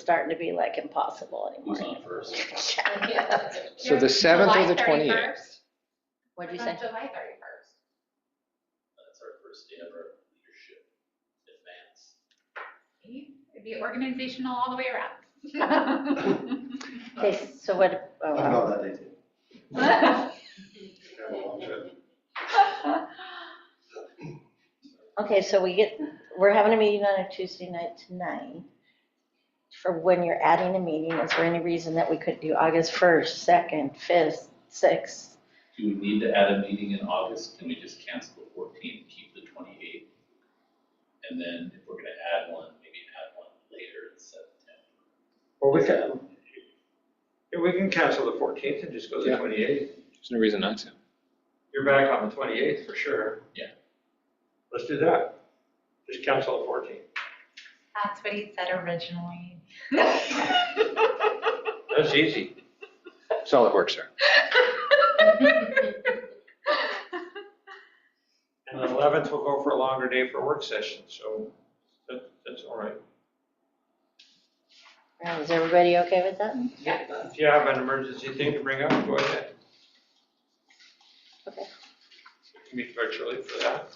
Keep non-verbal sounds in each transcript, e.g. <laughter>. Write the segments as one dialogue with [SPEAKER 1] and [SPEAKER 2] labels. [SPEAKER 1] starting to be like impossible
[SPEAKER 2] Who's
[SPEAKER 1] anymore.
[SPEAKER 2] on first?
[SPEAKER 3] So the 7th or
[SPEAKER 4] July
[SPEAKER 3] the 28th?
[SPEAKER 4] 31st?
[SPEAKER 1] What'd you
[SPEAKER 4] From
[SPEAKER 1] say?
[SPEAKER 4] July 31st.
[SPEAKER 2] That's our first day of our leadership advance.
[SPEAKER 4] See? It'd be organizational all the way around.
[SPEAKER 1] Okay, so what, oh,
[SPEAKER 5] I
[SPEAKER 1] wow.
[SPEAKER 5] love that day too. Yeah, well, I'm sure.
[SPEAKER 1] okay, so we get, we're having a meeting on a Tuesday night tonight. For when you're adding a meeting, is there any reason that we couldn't do August 1st, 2nd, 5th, 6th?
[SPEAKER 2] Do we need to add a meeting in August? Can we just cancel the fourteenth, keep the twenty-eighth? And then if we're gonna add one, maybe add one later in September.
[SPEAKER 6] Well, we can, we can cancel the fourteenth and just go to the
[SPEAKER 3] Yeah.
[SPEAKER 6] twenty-eighth.
[SPEAKER 3] There's no reason not to.
[SPEAKER 6] You're back on the twenty-eighth for sure.
[SPEAKER 2] Yeah.
[SPEAKER 6] Let's do that. Just cancel the fourteenth.
[SPEAKER 4] That's what he said originally.
[SPEAKER 6] That's easy.
[SPEAKER 3] Solid work, sir.
[SPEAKER 6] And the eleventh will go for a longer day for a work session, so that, that's all right.
[SPEAKER 1] Uh, Is everybody okay with that?
[SPEAKER 6] If you have an emergency thing to bring up, go ahead.
[SPEAKER 1] Okay.
[SPEAKER 6] Meet virtually for that.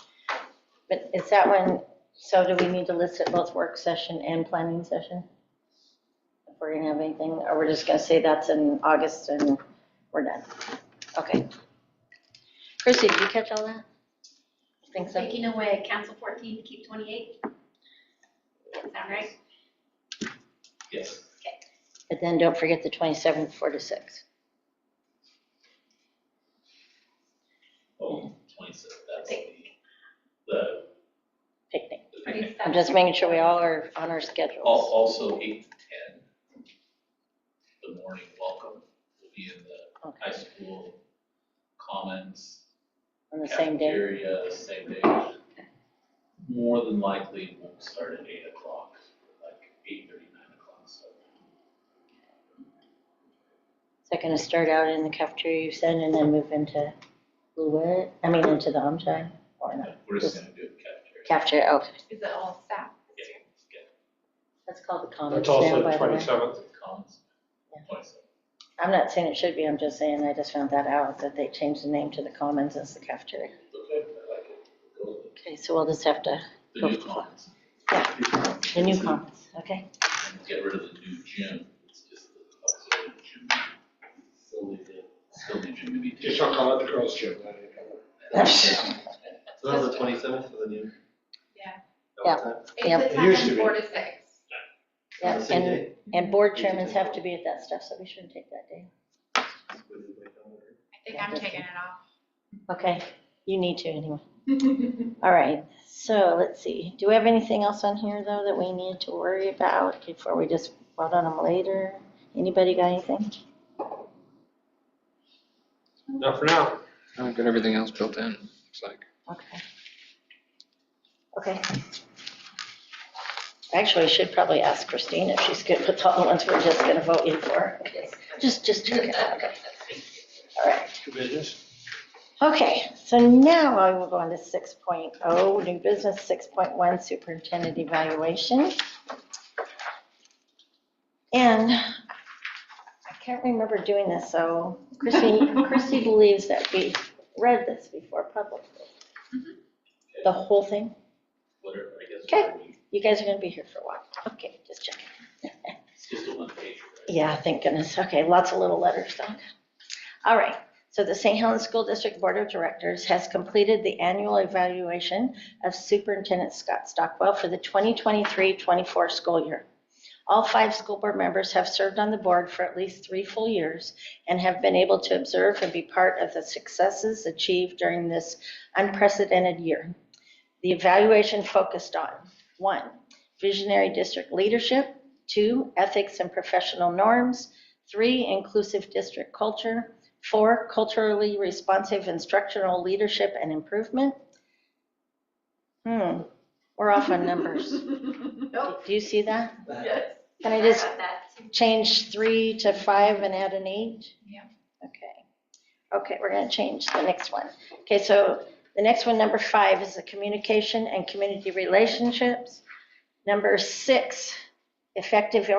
[SPEAKER 1] But is that when, so do we need to list it both work session and planning session? If we're gonna have anything, or we're just gonna say that's in August and we're done? Okay. Chrissy, did you catch all that? I think so.
[SPEAKER 4] Taking away council 14 to keep 28. Sound right?
[SPEAKER 2] Yes.
[SPEAKER 1] But then don't forget the 27th, 4 to 6.
[SPEAKER 2] Oh, twenty-seventh, that's the, the.
[SPEAKER 1] Picnic.
[SPEAKER 2] the
[SPEAKER 4] Pretty
[SPEAKER 2] thing.
[SPEAKER 4] set.
[SPEAKER 1] I'm just making sure we all are on our
[SPEAKER 2] Al-
[SPEAKER 1] schedules.
[SPEAKER 2] Also, eight to ten. The morning welcome will be in the
[SPEAKER 1] Okay,
[SPEAKER 2] high school commons.
[SPEAKER 1] On the same day.
[SPEAKER 2] Cafeteria, uh, same day. More than likely won't start at eight o'clock, like eight thirty, nine o'clock, so.
[SPEAKER 1] Is that gonna start out in the cafeteria you said and then move into Lewitt? I mean, into the, I'm sorry, or not?
[SPEAKER 2] We're just gonna do it cafeteria.
[SPEAKER 1] Cafeteria, okay.
[SPEAKER 4] Is it all staff? this year?
[SPEAKER 1] That's called the commons
[SPEAKER 6] That's
[SPEAKER 1] now, by
[SPEAKER 6] also the
[SPEAKER 1] the way.
[SPEAKER 6] twenty-seventh.
[SPEAKER 2] Commons.
[SPEAKER 1] Yeah.
[SPEAKER 2] Twice.
[SPEAKER 1] I'm not saying it should be, I'm just saying I just found that out, that they changed the name to the commons as the cafeteria.
[SPEAKER 2] Okay, I like it. Go with it.
[SPEAKER 1] Okay, so we'll just have to,
[SPEAKER 2] The new
[SPEAKER 1] Go for it.
[SPEAKER 2] commons.
[SPEAKER 1] the new commons, okay?
[SPEAKER 2] And Get rid of the new gym, it's just the auxiliary gym. Still need the, still need gym to be.
[SPEAKER 5] Just don't call it the girls' gym. So that was the twenty-seventh for the new.
[SPEAKER 4] Yeah.
[SPEAKER 1] Yeah. Yeah.
[SPEAKER 4] It's the
[SPEAKER 5] It used
[SPEAKER 4] time
[SPEAKER 5] to be.
[SPEAKER 4] four to six.
[SPEAKER 1] Yeah,
[SPEAKER 5] Same
[SPEAKER 1] and,
[SPEAKER 5] day.
[SPEAKER 1] and board chairmans have to be at that stuff, so we shouldn't take that day.
[SPEAKER 4] I think I'm taking it
[SPEAKER 1] Okay, you need to anyway.
[SPEAKER 4] off.
[SPEAKER 1] All right, so let's see, do we have anything else on here though that we need to worry about before we just vote on them later? Anybody got anything?
[SPEAKER 6] Not for now.
[SPEAKER 3] I've got everything else built in, looks like.
[SPEAKER 1] Okay. Okay. Actually, I should probably ask Christine if she's good with all the ones we're just gonna vote in for. Just, just check it out, okay. All right.
[SPEAKER 6] Two business.
[SPEAKER 1] Okay, so now I will go on to 6.0, new business, 6.1 superintendent evaluation. And I can't remember doing this, so Chrissy, Chrissy believes that we read this before publicly. The whole thing?
[SPEAKER 2] Whatever, I guess.
[SPEAKER 1] Okay.
[SPEAKER 2] whatever we-
[SPEAKER 1] You guys are gonna be here for a while. Okay, just checking.
[SPEAKER 2] It's just a one page, right?
[SPEAKER 1] Yeah, thank goodness. Okay, lots of little letters, though. All right, so the St. Helens School District Board of Directors has completed the annual evaluation of Superintendent Scott Stockwell for the 2023-24 school year. All five school board members have served on the board for at least three full years and have been able to observe and be part of the successes achieved during this unprecedented year. The evaluation focused on, one, visionary district leadership, Two, ethics and professional norms. Three, inclusive district culture. Four, culturally responsive instructional leadership and improvement. Hmm, we're off on numbers.
[SPEAKER 4] <laughs> Nope.
[SPEAKER 1] Do you see that?
[SPEAKER 4] Yes.
[SPEAKER 1] Can I just
[SPEAKER 4] Got that too.
[SPEAKER 1] change three to five and add an eight?
[SPEAKER 4] Yeah.
[SPEAKER 1] Okay. Okay, we're gonna change the next one. Okay, so the next one, number five, is the communication and community relationships. Number six, effective